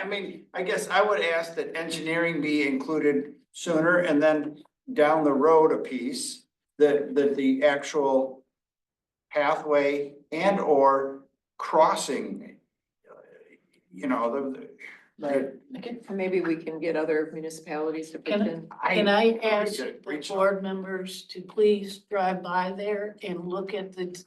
I mean, I guess I would ask that engineering be included sooner and then down the road a piece. That, that the actual pathway and or crossing. You know, the, the. Okay. And Maybe we can get other municipalities to pitch Can I- in. I- Can I we ask should the reach out. board members to please drive by there and look at the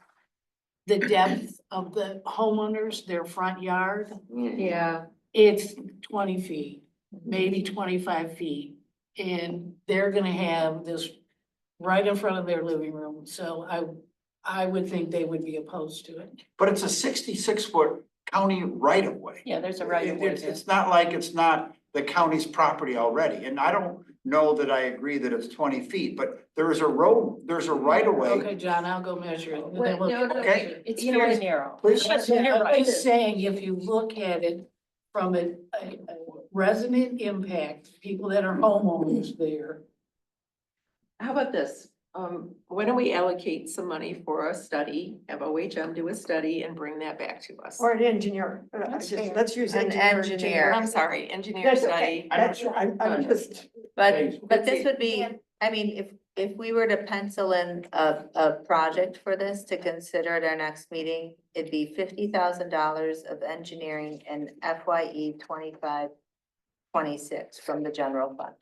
the depth of the homeowners, their front yard? Yeah. It's twenty feet, maybe twenty-five feet. And they're gonna have this right in front of their living room, so I, I would think they would be opposed to it. But it's a sixty-six foot county right of way. Yeah, there's a right of It- way It's, there. it's not like it's not the county's property already, and I don't know that I agree that it's twenty feet, but there is a road, there's a right of way. Okay, John, I'll go measure it. and then Well, we'll- no, no, Okay. It's You know, very it's- narrow. Please, I'm just- I'm just saying, if you look at it from a, a a resident impact, people that are homeowners there. How about this? Um, why don't we allocate some money for a study, have OHM do a study and bring that back to us? Or an engineer, uh, That's just- fair. let's use An engineer. engineer, I'm sorry, engineer That's okay. study. I That's, don't- I'm, I'm just, But, Thanks. but this would be, I mean, if, if we were to pencil in a, a project for this to consider at our next meeting, it'd be fifty thousand dollars of engineering and FYE E twenty-five, twenty-six from the general fund.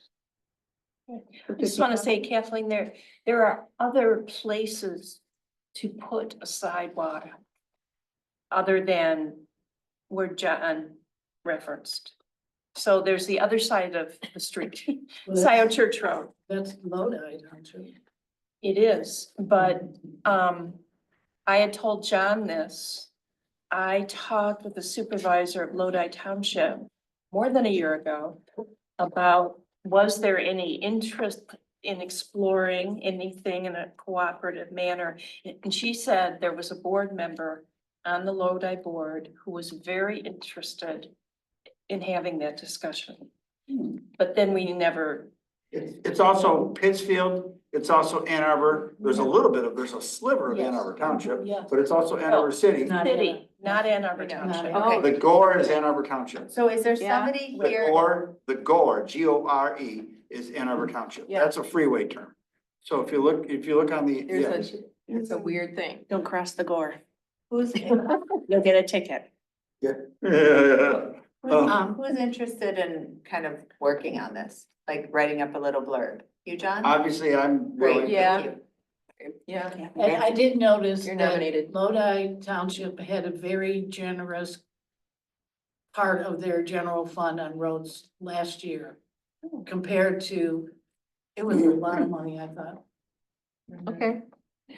I just want to say Kathleen, there, there are other places to put a sidewalk other than where John referenced. So there's the other side of the street, Scioto Church Road. That's Lodi, don't you? It is, but um, I had told John this. I talked with the supervisor of Lodi Township more than a year ago about was there any interest in exploring anything in a cooperative manner? And she said there was a board member on the Lodi board who was very interested in having that discussion. But then we never, It's, it's also Pittsfield, it's also Ann Arbor, there's a little bit of, there's a sliver of Ann Yes. Arbor Township, Yeah. but it's also Oh. Ann Arbor City. Not Ann Arbor. city, not Ann Arbor Not Township. Ann Okay. The Gore is Ann Arbor Township. Oh. So is there Yeah. somebody The here? Gore, the Gore, G O R E, is Ann Arbor Township. Yeah. That's a freeway term. So if you look, if you look on the, yeah, There's a, it's a weird thing. Don't cross the gore. Who's, You'll get a ticket. Yeah. who's, um, who's interested in kind of working on this, like writing up a little blurb? You, John? Obviously, I'm Great, willing. thank yeah. you. Yeah. I, I did notice You're that nominated. Lodi Township had a very generous part of their general fund on roads last year compared to, it was a lot of money, I thought. Okay.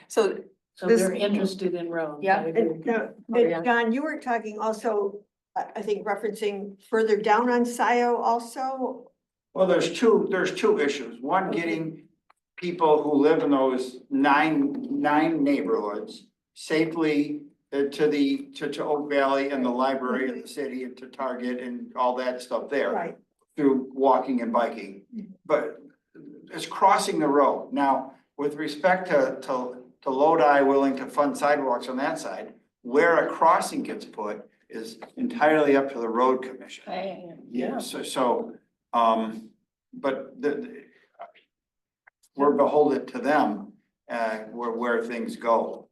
So, So This- they're interested in roads. I Yeah. agree. and, uh, yeah. and John, you were talking also, I, I think referencing further down on SIO also. Well, there's two, there's two issues. One, getting people who live in those nine, nine neighborhoods safely uh, to the, to, to Oak Valley and the library and the city and to Target and all that stuff there. Right, through walking and biking. But it's crossing the road. Now, with respect to, to, to Lodi willing to fund sidewalks on that side, where a crossing gets put is entirely up to the road commission. yeah. So, so, um, but the, the- we're beholden to them, uh, where, where things go.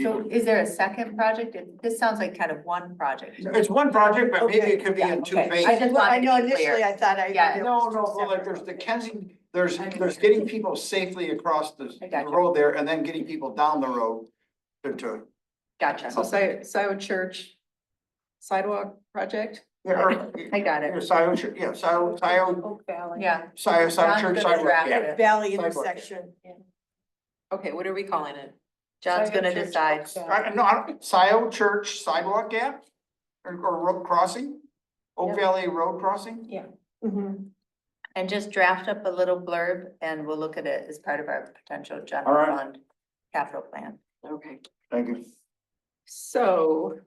So is there a second project? It- This sounds like kind of one project. It's one project, but maybe it could be Okay, yeah, in two okay. phases. I just well, I wanted to know be clear. initially I thought I. Yeah. it No, was no, but like separate. there's the Kensington, there's, there's getting people safely across the I the got you. road there and then getting people down the road to, to, Gotcha. so Scio, Scio Church sidewalk project? yeah, or, I got yeah, it. Scioto Church, yeah, Scioto, Scioto, Oak Valley. Yeah. Scioto, John's Scioto Church gonna sidewalk, draft yeah. it. Valley Sidewalk. intersection. Okay, what are we calling it? John's gonna Scion Church, decide. Oak Valley. I, no, I, don't- Scioto Church sidewalk gap or, or road crossing, Oak Valley Road crossing? Mhm. And just draft up a little blurb and we'll look at it as part of our potential All general right. fund capital plan. Okay. Thank you. So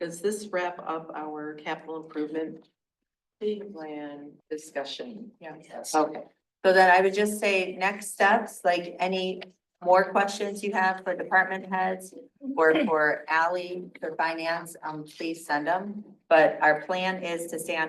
does this wrap up our capital improvement plan discussion? Yeah. Okay. So then I would just say next steps, like any more questions you have for department heads or for Ally, for finance, um, please send them. But our plan is to stay on